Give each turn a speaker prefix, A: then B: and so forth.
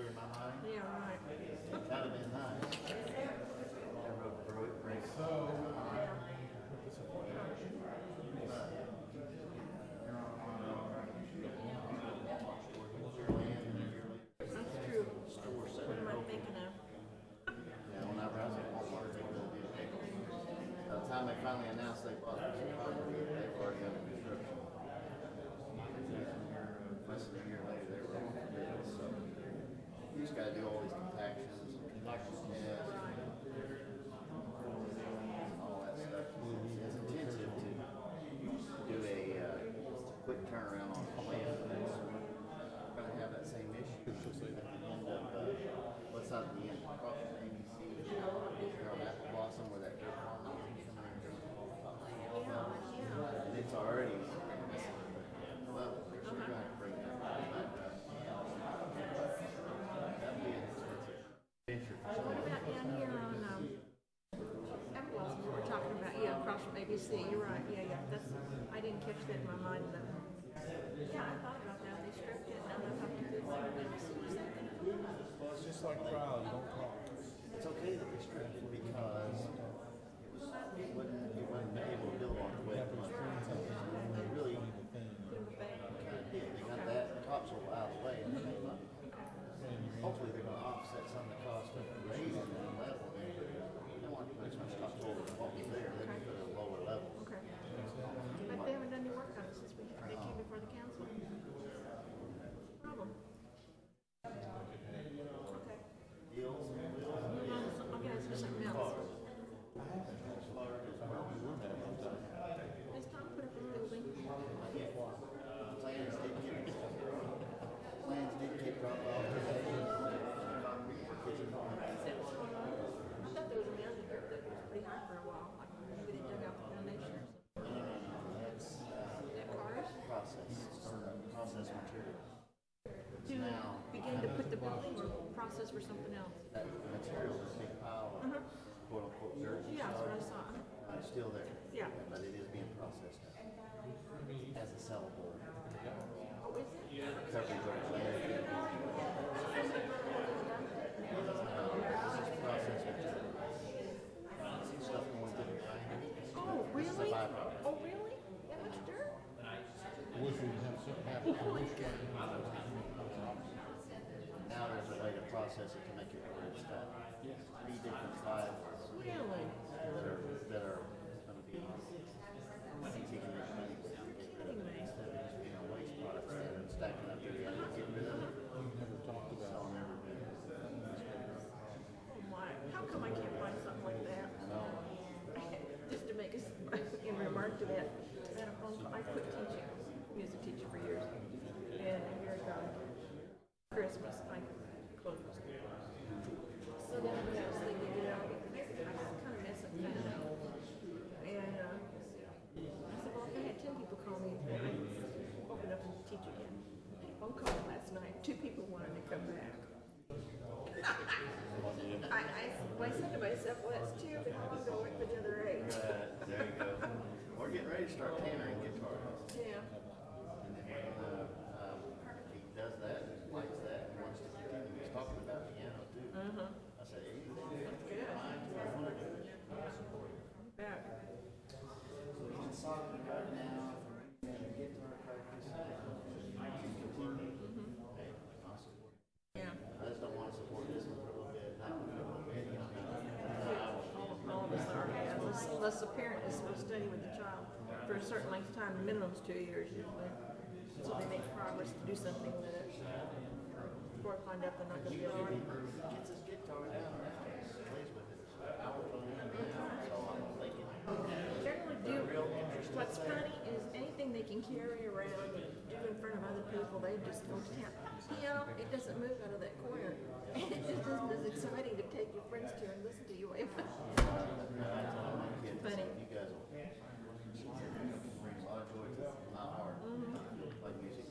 A: Yeah, right.
B: That'd have been nice. That road broke, breaks.
A: That's true. What am I thinking of?
B: Yeah, whenever I was at Walmart, they built these vehicles. By the time they finally announced they bought this property, they were already under construction. Less than a year later, they were open for bid, so you just gotta do all these compactions, tests, and all that stuff. It's intensive to do a, uh, quick turnaround on a plan, we're gonna have that same issue. End up, uh, What's out the end, across from ABC, there on Apple Blossom where that good farm is. And It's already messing with the level, they're sure gonna have to bring that back up. That'd be an expensive venture for
A: What
B: someone.
A: about down here on, um, that was what we're talking about, yeah, across from ABC, you're right, yeah, yeah, that's, I didn't catch that in my mind, but. Yeah, I thought about that, they stripped it, and I thought, I see what's happening.
C: It's just like trial, you don't talk.
B: It's okay that it's restricted because it was, it wouldn't, it wouldn't be able to build on it with money. They really kinda did, they got that topsoil out of the way and then they, left it. hopefully they're gonna offset some of the cost of raising that level. They don't want to put as much topsoil as what was there, they're gonna put a lower level.
A: Okay. But they haven't done any work on it since we, they came before the council. Problem. Okay.
B: Deals and wheels.
A: Move on to some- Okay, let's do something else. Let's not put up a building.
B: Plans did get, plans did get dropped off today.
A: Is that what's going on? I thought there was a mountain group that was pretty high for a while, like maybe they dug out the foundation or something.
B: That's, uh,
A: Is that cars?
B: process, or process material.
A: To
B: Now-
A: begin to put the building or process for something else? Uh-huh.
B: That material is a big pile of quote unquote dirt and
A: Yeah, that's what I
B: stuff.
A: saw.
B: Uh, It's still there.
A: Yeah.
B: But it is being processed now. As a sellable
A: Oh, is it?
B: coverage of land. It's processed material. Stuff going to the grinder.
A: Oh,
B: It's a
A: really?
B: byproduct.
A: Oh, really? That much dirt?
C: Wish we would have something happen.
B: Now there's a way to process it to make it where it's got three different files
A: Really?
B: that are, that are gonna be taken out and get rid of it instead of just being a waste product instead of stacking up there, you gotta get rid of it. So never been,
A: Oh my, how come I can't find something like that?
B: no,
A: Just to make us, in remark to that, I had a phone call, I quit teaching, music teacher for years. And a year ago, Christmas, I closed my school. So then when I was thinking, you know, I was kind of messing things up. And, uh, I said, well, if I had ten people call me, I'd open up and teach again. I had a phone call last night, two people wanted to come back. I, I, well, I said to myself, well, that's two, but how long do I wait for the other eight?
B: uh, there you go. We're getting ready to start tannering guitars.
A: Yeah,
B: And then when, uh, um, he does that, likes that, and wants to continue, he's talking about piano too.
A: Uh-huh.
B: I said, anything,
A: that's good.
B: I wanna do it.
A: Yeah.
B: So he's talking about now, guitar practice, I can continue. Hey, I'll support it.
A: Yeah.
B: I just don't wanna support this one for a little bit, not for a little bit, you know, I won't
A: All of
B: be able to
A: us are, yeah, unless, unless the parent is supposed to study with the child for a certain length of time, the minimum's two years usually. So they make progress to do something with it. Before I find out they're not gonna be all right.
B: Gets his guitar down now, plays with it. I will play it now, so I'm thinking,
A: Generally do, what's funny is anything they can carry around, and do in front of other people, they just go to town. You know, it doesn't move out of that corner. And it just isn't as exciting to take your friends to and listen to you.
B: I tell my kids, I said,
A: Funny.
B: you guys will, she said, you can bring a lot of joy to my heart, play music